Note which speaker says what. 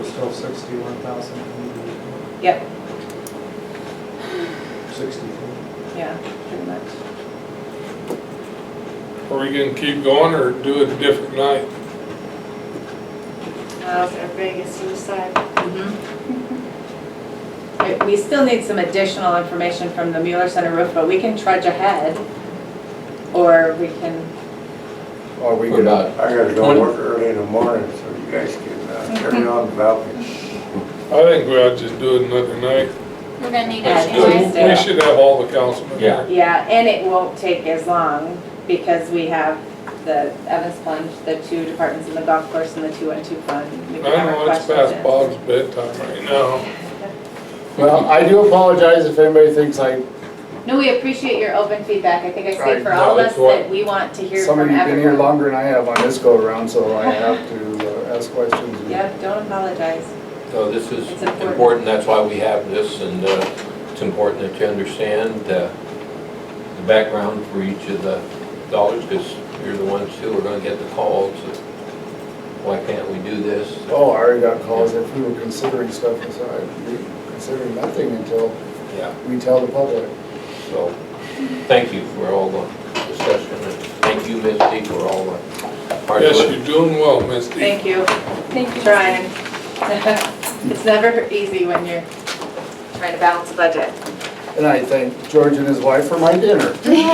Speaker 1: So sixty-one thousand,
Speaker 2: Yep,
Speaker 1: sixty-four.
Speaker 2: yeah, pretty much.
Speaker 3: Are we gonna keep going or do it a different night?
Speaker 4: How's our biggest suicide?
Speaker 2: But Mm-hmm. We still need some additional information from the Mueller Center roof, but we can trudge ahead. Or we can,
Speaker 5: Or we
Speaker 3: Or
Speaker 5: could,
Speaker 3: not.
Speaker 5: I gotta go work early in the morning, so you guys can uh, carry on about it.
Speaker 3: I think we ought to just do it another night.
Speaker 6: We're gonna need it
Speaker 2: Let's do
Speaker 6: anyway.
Speaker 2: it.
Speaker 3: We should have all the councilmen here.
Speaker 2: yeah, and it won't take as long because we have the Evans Plunge, the two departments in the golf course and the two and two fund. We
Speaker 3: I
Speaker 2: can have our
Speaker 3: know it's
Speaker 2: questions
Speaker 3: past
Speaker 2: in.
Speaker 3: Bob's bedtime right now.
Speaker 7: Well, I do apologize if anybody thinks I,
Speaker 2: No, we appreciate your open feedback. I think I
Speaker 7: Right,
Speaker 2: speak for
Speaker 3: no,
Speaker 2: all of us
Speaker 3: that's what-
Speaker 2: that we want to hear
Speaker 7: some
Speaker 2: from
Speaker 7: of
Speaker 2: everyone.
Speaker 7: you have been here longer than I have on this go-around, so I have to uh, ask questions. and-
Speaker 2: Yep, don't apologize.
Speaker 8: So this is
Speaker 2: It's important.
Speaker 8: important, that's why we have this, and uh, it's important that you understand uh, the background for each of the dollars, because you're the ones who are gonna get the calls. Why can't we do this?
Speaker 7: Oh, I already got calls if we were considering stuff, I said, I'd be considering nothing until
Speaker 8: Yeah.
Speaker 7: we tell the public.
Speaker 8: So, thank you for all the discussion, and thank you, Misty, for all the hard
Speaker 3: Yes,
Speaker 8: work.
Speaker 3: you're doing well, Misty.
Speaker 2: Thank you.
Speaker 6: Thank you.
Speaker 2: Trying. It's never easy when you're trying to balance a budget.
Speaker 7: And I thank George and his wife for my dinner.